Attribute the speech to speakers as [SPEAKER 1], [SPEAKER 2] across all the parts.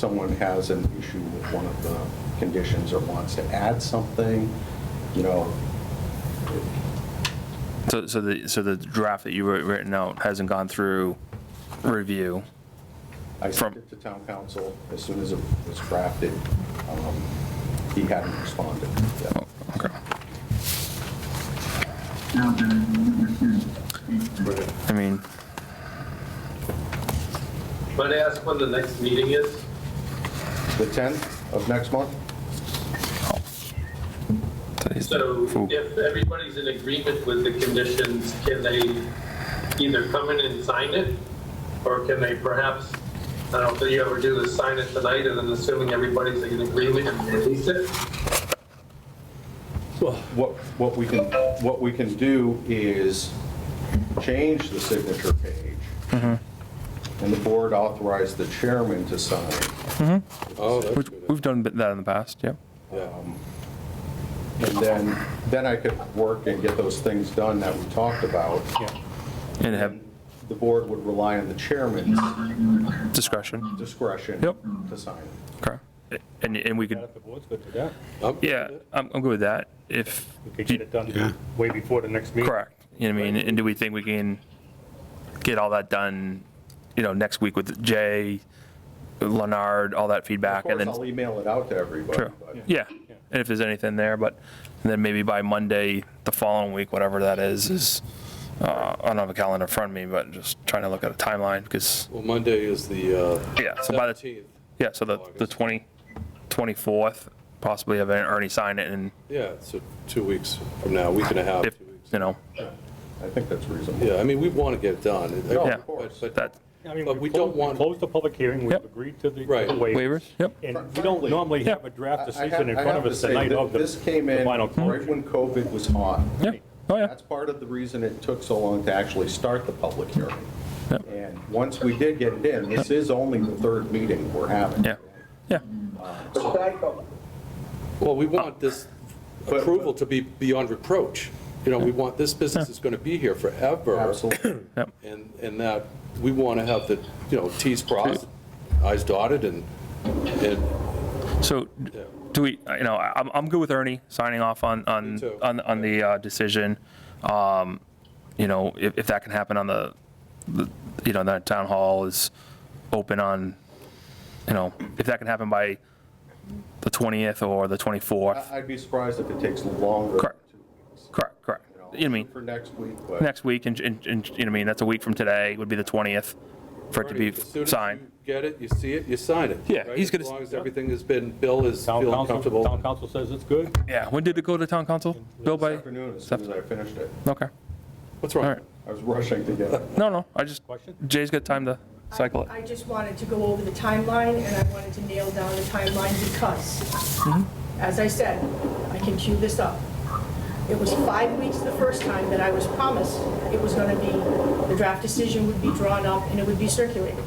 [SPEAKER 1] someone has an issue with one of the conditions or wants to add something, you know,
[SPEAKER 2] So, so the, so the draft that you wrote written out hasn't gone through review?
[SPEAKER 1] I sent
[SPEAKER 2] From-
[SPEAKER 1] it to town council as soon as it was drafted. um, He hadn't responded. yet.
[SPEAKER 2] Okay. I mean,
[SPEAKER 3] Might I ask when the next meeting is?
[SPEAKER 1] The 10th of next month?
[SPEAKER 2] today's the
[SPEAKER 3] So
[SPEAKER 2] fool-
[SPEAKER 3] if everybody's in agreement with the conditions, can they either come in and sign it? Or can they perhaps, I don't think you ever do this, sign it tonight and then assuming everybody's in agreement and release it?
[SPEAKER 1] What, what we can, what we can do is change the signature page. And the board authorized the chairman to sign.
[SPEAKER 4] Oh, that's
[SPEAKER 2] We've,
[SPEAKER 4] good.
[SPEAKER 2] we've done that in the past, yep.
[SPEAKER 1] And then, then I could work and get those things done that we talked about.
[SPEAKER 2] And have
[SPEAKER 1] The board would rely on the chairman's
[SPEAKER 2] discretion,
[SPEAKER 1] discretion
[SPEAKER 2] Yep.
[SPEAKER 1] to sign it.
[SPEAKER 2] okay. And, and we could,
[SPEAKER 5] If the board's good with that,
[SPEAKER 4] I'm-
[SPEAKER 2] yeah, I'm, I'm good with that, if,
[SPEAKER 5] we could get it done way before the next meeting.
[SPEAKER 2] correct. You know what I mean, and do we think we can get all that done, you know, next week with Jay, Leonard, all that
[SPEAKER 1] Of
[SPEAKER 2] feedback? and
[SPEAKER 1] course,
[SPEAKER 2] then?
[SPEAKER 1] I'll email it out to everybody,
[SPEAKER 2] True.
[SPEAKER 1] but
[SPEAKER 2] Yeah, and if there's anything there, but then maybe by Monday, the following week, whatever that is, is, uh, I don't have a calendar in front of me, but just trying to look at a timeline, because,
[SPEAKER 4] Well, Monday is the uh,
[SPEAKER 2] yeah, so by the,
[SPEAKER 4] 17th.
[SPEAKER 2] yeah, so the, the 20, 24th, possibly have Ernie sign it and
[SPEAKER 4] Yeah, so two weeks from now, week and a half,
[SPEAKER 2] if,
[SPEAKER 4] two weeks.
[SPEAKER 2] you know,
[SPEAKER 1] I think that's reasonable.
[SPEAKER 4] Yeah, I mean, we want to get it done. It-
[SPEAKER 1] No,
[SPEAKER 2] Yeah.
[SPEAKER 1] of course.
[SPEAKER 4] But
[SPEAKER 2] that,
[SPEAKER 4] but
[SPEAKER 5] I mean,
[SPEAKER 4] But we don't
[SPEAKER 5] closed-
[SPEAKER 4] want-
[SPEAKER 5] Closed the public hearing, we've
[SPEAKER 2] Yep.
[SPEAKER 5] agreed to the to the
[SPEAKER 4] Right.
[SPEAKER 5] waivers.
[SPEAKER 2] waivers, yep,
[SPEAKER 5] And we don't normally have a draft
[SPEAKER 1] I- I have-
[SPEAKER 5] decision in
[SPEAKER 1] I
[SPEAKER 5] front
[SPEAKER 1] have
[SPEAKER 5] of
[SPEAKER 1] to
[SPEAKER 5] us the
[SPEAKER 1] say
[SPEAKER 5] night
[SPEAKER 1] that
[SPEAKER 5] of the
[SPEAKER 1] This came in
[SPEAKER 5] the final
[SPEAKER 2] Hmm?
[SPEAKER 1] right
[SPEAKER 5] closure.
[SPEAKER 1] when COVID was hot.
[SPEAKER 2] yeah, oh, yeah,
[SPEAKER 1] That's part of the reason it took so long to actually start the public hearing. And once we did get it in, this is only the third meeting we're having.
[SPEAKER 2] yeah, yeah,
[SPEAKER 4] Well, we want this
[SPEAKER 1] But-
[SPEAKER 4] approval to be beyond reproach. You know, we want, this business is going to be here forever.
[SPEAKER 1] Absolutely.
[SPEAKER 4] And, and that, we want to have the, you know, Ts crossed, Is dotted, and, and,
[SPEAKER 2] so,
[SPEAKER 4] yeah.
[SPEAKER 2] do we, uh, you know, I- I'm, I'm good with Ernie signing off on,
[SPEAKER 4] Me
[SPEAKER 2] on,
[SPEAKER 4] too.
[SPEAKER 2] on, on the uh, decision. Um, You know, if, if that can happen on the, the- you know, that town hall is open on, you know, if that can happen by the 20th or the 24th,
[SPEAKER 4] Uh,
[SPEAKER 1] I- I'd be surprised if it takes longer. than
[SPEAKER 2] Correct.
[SPEAKER 1] two weeks,
[SPEAKER 2] correct, correct.
[SPEAKER 1] you
[SPEAKER 2] You know what I mean,
[SPEAKER 1] For next week, but.
[SPEAKER 2] next week, and, and, and, you know, what I mean, that's a week from today, would be the 20th for it to be
[SPEAKER 4] As soon as
[SPEAKER 2] signed.
[SPEAKER 4] you Get it, you see it, you sign it.
[SPEAKER 2] Yeah,
[SPEAKER 4] right?
[SPEAKER 2] he's gonna-
[SPEAKER 4] As long as everything has been, Bill is
[SPEAKER 5] Town
[SPEAKER 4] feeling
[SPEAKER 5] council,
[SPEAKER 4] comfortable.
[SPEAKER 5] town council says it's good.
[SPEAKER 2] Yeah, when did it go to town council? Bill
[SPEAKER 1] This
[SPEAKER 2] by,
[SPEAKER 1] afternoon, as soon as I finished it,
[SPEAKER 2] okay,
[SPEAKER 4] What's
[SPEAKER 2] all
[SPEAKER 4] wrong?
[SPEAKER 2] right.
[SPEAKER 1] I was rushing to get it.
[SPEAKER 2] No, no, I just,
[SPEAKER 5] Question?
[SPEAKER 2] Jay's got time to cycle it.
[SPEAKER 6] I just wanted to go over the timeline, and I wanted to nail down the timeline because,
[SPEAKER 2] Mm-hmm.
[SPEAKER 6] as I said, I can cue this up. It was five weeks the first time that I was promised it was going to be, the draft decision would be drawn up and it would be circulated.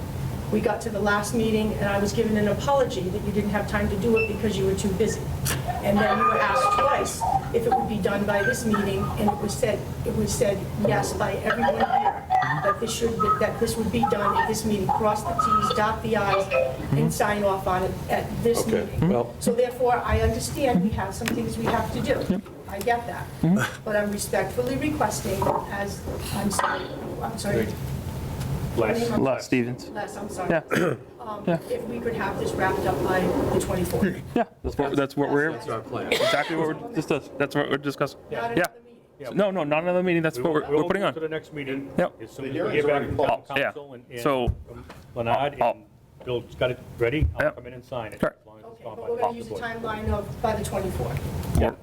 [SPEAKER 6] We got to the last meeting, and I was given an apology that you didn't have time to do it because you were too busy. And then you were asked twice if it would be done by this meeting, and it was said, it was said yes by everyone here, that this should, that this would be done at this meeting, cross the Ts, dot the Is, and sign off on it at this
[SPEAKER 4] Okay,
[SPEAKER 6] meeting.
[SPEAKER 4] well-
[SPEAKER 6] So therefore, I understand we have some things we have to do. I get that. But I'm respectfully requesting, as, I'm sorry, I'm sorry.
[SPEAKER 5] Les.
[SPEAKER 2] Les Stevens.
[SPEAKER 6] Les, I'm
[SPEAKER 2] Yeah.
[SPEAKER 6] sorry. Um, If we could have this wrapped up by the 24th.
[SPEAKER 2] Yeah, that's what, that's what we're,
[SPEAKER 4] That's our plan.
[SPEAKER 2] exactly what we're, this does, that's what we're discussing.
[SPEAKER 6] Not
[SPEAKER 2] Yeah.
[SPEAKER 6] another meeting.
[SPEAKER 2] No, no, not another meeting, that's
[SPEAKER 5] We
[SPEAKER 2] what
[SPEAKER 5] will-
[SPEAKER 2] we're, we're putting
[SPEAKER 5] We'll move to
[SPEAKER 2] on.
[SPEAKER 5] the next meeting.
[SPEAKER 2] Yep.
[SPEAKER 5] As soon as
[SPEAKER 1] The
[SPEAKER 5] we
[SPEAKER 1] hearing's
[SPEAKER 5] get back
[SPEAKER 1] already
[SPEAKER 5] from town
[SPEAKER 2] closed. Yeah.
[SPEAKER 5] council and-
[SPEAKER 2] So-
[SPEAKER 5] and Leonard
[SPEAKER 2] I'll-
[SPEAKER 5] and Bill's got it ready, I'll
[SPEAKER 2] Yep.
[SPEAKER 5] come in and sign it.
[SPEAKER 2] Correct.
[SPEAKER 5] as long as it's
[SPEAKER 6] Okay,
[SPEAKER 5] gone
[SPEAKER 6] but
[SPEAKER 5] by
[SPEAKER 6] we're
[SPEAKER 5] the
[SPEAKER 6] going to use a
[SPEAKER 5] board.
[SPEAKER 6] timeline of, by the 24th.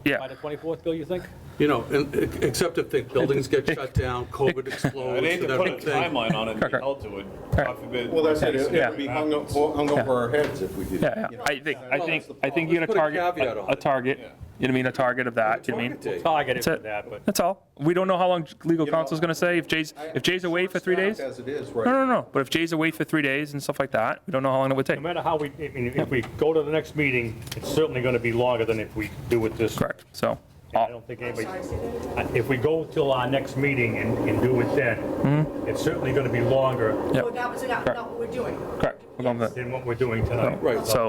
[SPEAKER 2] Yeah,
[SPEAKER 5] By the 24th, Bill, you think?
[SPEAKER 4] You know, and- e, except if the buildings get shut down, COVID explodes.
[SPEAKER 7] I need to
[SPEAKER 4] and
[SPEAKER 7] put a
[SPEAKER 4] everything.
[SPEAKER 7] timeline on it and be
[SPEAKER 2] Correct.
[SPEAKER 7] held to it.
[SPEAKER 2] Correct.
[SPEAKER 7] God forbid.
[SPEAKER 1] Well, that's it, it
[SPEAKER 2] Yeah.
[SPEAKER 1] would be hung o- hung over our heads if we did.
[SPEAKER 2] yeah, yeah. I think, I think, I think you're
[SPEAKER 4] Let's
[SPEAKER 2] gonna
[SPEAKER 4] put a
[SPEAKER 2] target,
[SPEAKER 4] caveat
[SPEAKER 2] a-
[SPEAKER 4] on
[SPEAKER 2] a
[SPEAKER 4] it.
[SPEAKER 2] target, you know what I mean, a target of that, you know what I mean?
[SPEAKER 4] Target date.
[SPEAKER 5] Target it
[SPEAKER 2] That's
[SPEAKER 5] for
[SPEAKER 2] it.
[SPEAKER 5] that, but.
[SPEAKER 2] That's all. We don't know how long legal
[SPEAKER 1] know,
[SPEAKER 2] counsel's gonna say, if Jay's, if Jay's away for three days.
[SPEAKER 1] As
[SPEAKER 2] No,
[SPEAKER 1] it is, right?
[SPEAKER 2] no, no, but if Jay's away for three days and stuff like that, we don't know how long it would take.
[SPEAKER 5] No matter how we, I mean, if we go to the next meeting, it's certainly going to be longer than if we do it this.
[SPEAKER 2] Correct, so,
[SPEAKER 5] I
[SPEAKER 2] all-
[SPEAKER 5] don't think
[SPEAKER 6] I'm
[SPEAKER 5] anybody, uh,
[SPEAKER 6] sorry, say that again.
[SPEAKER 5] if we go till our next meeting and, and do it then, it's certainly going to be longer.
[SPEAKER 2] Yep.
[SPEAKER 6] Oh, Well, that was not, not what we're doing.
[SPEAKER 2] correct.
[SPEAKER 8] we're going with that.
[SPEAKER 2] in what we're doing tonight.
[SPEAKER 5] Right.
[SPEAKER 8] So